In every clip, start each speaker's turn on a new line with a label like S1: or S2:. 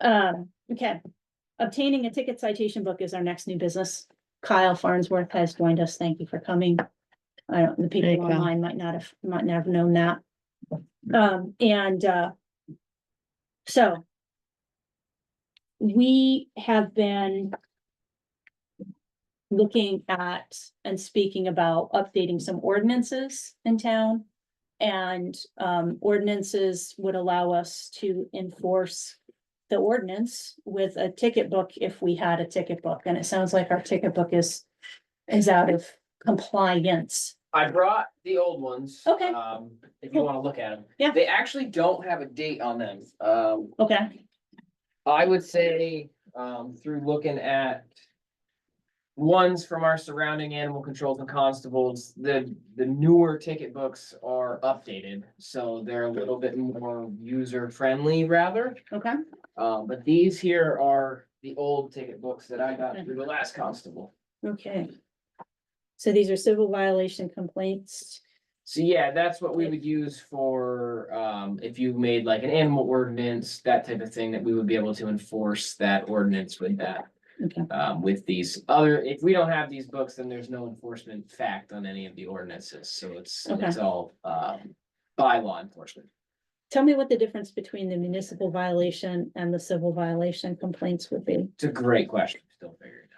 S1: Um, okay, obtaining a ticket citation book is our next new business. Kyle Farnsworth has joined us. Thank you for coming. I don't, the
S2: Hey,
S1: people
S2: Kyle.
S1: online might not have, might not have known that. Um, and, uh. So. We have been. Looking at and speaking about updating some ordinances in town. And, um, ordinances would allow us to enforce the ordinance with a ticket book if we had a ticket book, and it sounds like our ticket book is, is out of compliance.
S3: I brought the old ones.
S1: Okay.
S3: Um, if you
S1: Cool.
S3: wanna look at them.
S1: Yeah.
S3: They actually don't have a date on them. Um,
S1: Okay,
S3: I would say, um, through looking at ones from our surrounding animal controls and constables, the, the newer ticket books are updated. So they're a little bit more user friendly rather.
S1: okay,
S3: Um, but these here are the old ticket books that I got through the last constable.
S1: okay. So these are civil violation complaints.
S3: So yeah, that's what we would use for, um, if you made like an animal ordinance, that type of thing, that we would be able to enforce that ordinance with that.
S1: Okay.
S3: Um, with these other, if we don't have these books, then there's no enforcement fact on any of the ordinances, so it's, it's all, um, by law enforcement.
S1: Tell me what the difference between the municipal violation and the civil violation complaints would be.
S3: It's a great question, still figuring it out.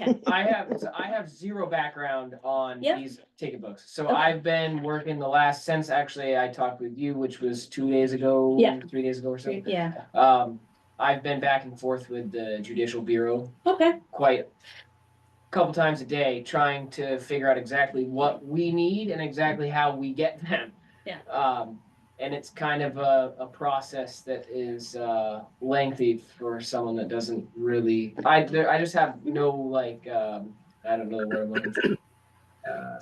S1: Okay,
S3: I have, so I have zero background on
S1: Yeah.
S3: these ticket books, so
S1: Okay.
S3: I've been working the last, since actually I talked with you, which was two days ago.
S1: Yeah.
S3: Three days ago or so.
S1: yeah,
S3: Um, I've been back and forth with the judicial bureau
S1: okay,
S3: quite a couple times a day, trying to figure out exactly what we need and exactly how we get them.
S1: Yeah.
S3: Um, and it's kind of a, a process that is, uh, lengthy for someone that doesn't really, I, there, I just have no, like, um, I don't know what I'm looking for. Uh,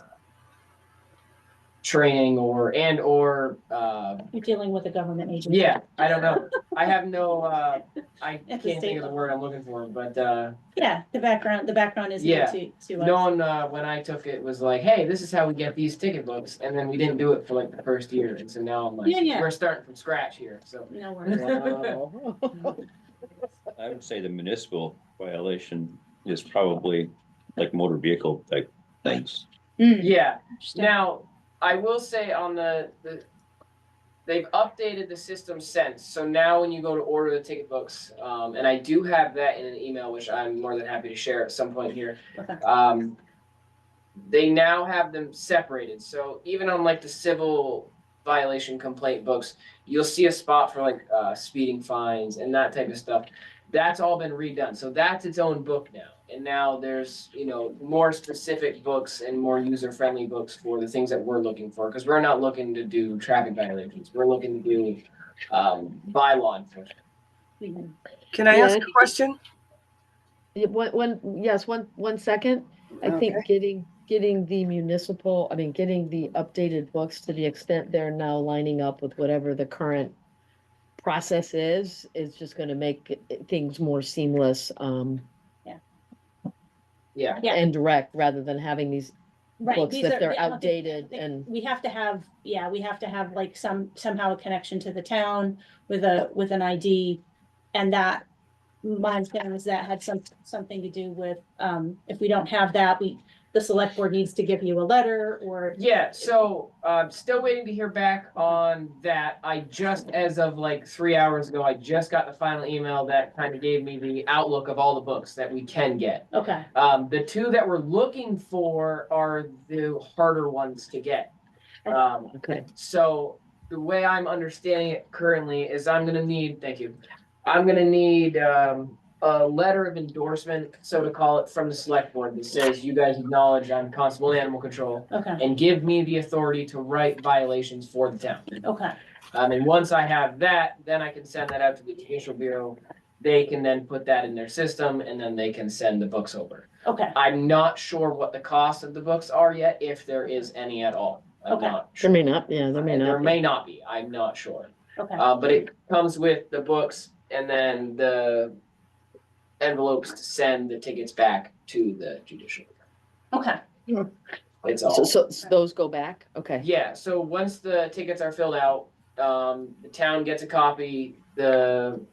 S3: Training or, and or, uh,
S1: you're dealing with a government agency.
S3: yeah, I don't know. I have no, uh, I
S1: At
S3: can't
S1: the state
S3: think of the
S1: level.
S3: word I'm looking for, but, uh,
S1: Yeah, the background, the background is new
S3: Yeah.
S1: to, to
S3: no
S1: us.
S3: one, uh, when I took it was like, hey, this is how we get these ticket books. And then we didn't do it for like the first year. And so now I'm like,
S1: Yeah, yeah.
S3: we're starting from scratch here. So,
S1: No worries.
S4: I would say the municipal violation is probably like motor vehicle type things.
S1: Mm,
S3: yeah.
S1: interesting.
S3: Now, I will say on the, the, they've updated the system since. So now when you go to order the ticket books, um, and I do have that in an email, which I'm more than happy to share at some point here.
S1: Okay.
S3: Um, they now have them separated. So even on like the civil violation complaint books, you'll see a spot for like uh, speeding fines and that type of stuff. That's all been redone. So that's its own book now. And now there's, you know, more specific books and more user friendly books for the things that we're looking for. Cause we're not looking to do traffic violations. We're looking to do um, bylaw enforcement.
S1: Mhm.
S5: Can I
S2: Yeah,
S5: ask
S2: I
S5: a question?
S2: Yeah, One, one, yes, one, one second. I think getting, getting the municipal, I mean, getting the updated books to the extent they're now lining up with whatever the current process is, is just gonna make it- it- things more seamless, um,
S3: Yeah.
S1: Yeah.
S2: and direct, rather than having these
S1: Right,
S2: books
S1: these
S2: that
S1: are-
S2: they're
S1: yeah, okay.
S2: outdated
S1: think
S2: and,
S1: we have to have, yeah, we have to have like some, somehow a connection to the town with a, with an ID. And that, my understanding is that had some, something to do with, um, if we don't have that, we, the select board needs to give you a letter or,
S3: Yeah, so i still waiting to hear back on that. I just, as of like three hours ago, I just got the final email that kind of gave me the outlook of all the books that we can get.
S1: okay,
S3: Um, the two that we're looking for are the harder ones to get. Um,
S2: okay.
S3: so the way I'm understanding it currently is I'm gonna need, thank you. I'm gonna need um a letter of endorsement, so to call it, from the select board that says you guys acknowledge I'm constable animal control
S1: okay,
S3: and give me the authority to write violations for the town.
S1: okay,
S3: Um, and once I have that, then I can send that out to the judicial bureau. They can then put that in their system and then they can send the books over.
S1: okay,
S3: I'm not sure what the cost of the books are yet, if there is any at all. I'm
S1: Okay.
S3: not
S2: There
S3: sure.
S2: may not, yeah, there may
S3: There
S2: not. be.
S3: may not be, I'm not sure.
S1: okay,
S3: Uh, but it comes with the books and then the envelopes to send the tickets back to the judicial.
S1: okay,
S3: It's all.
S2: So, so so those go back, okay.
S3: Yeah, so once the tickets are filled out, um, the town gets a copy, the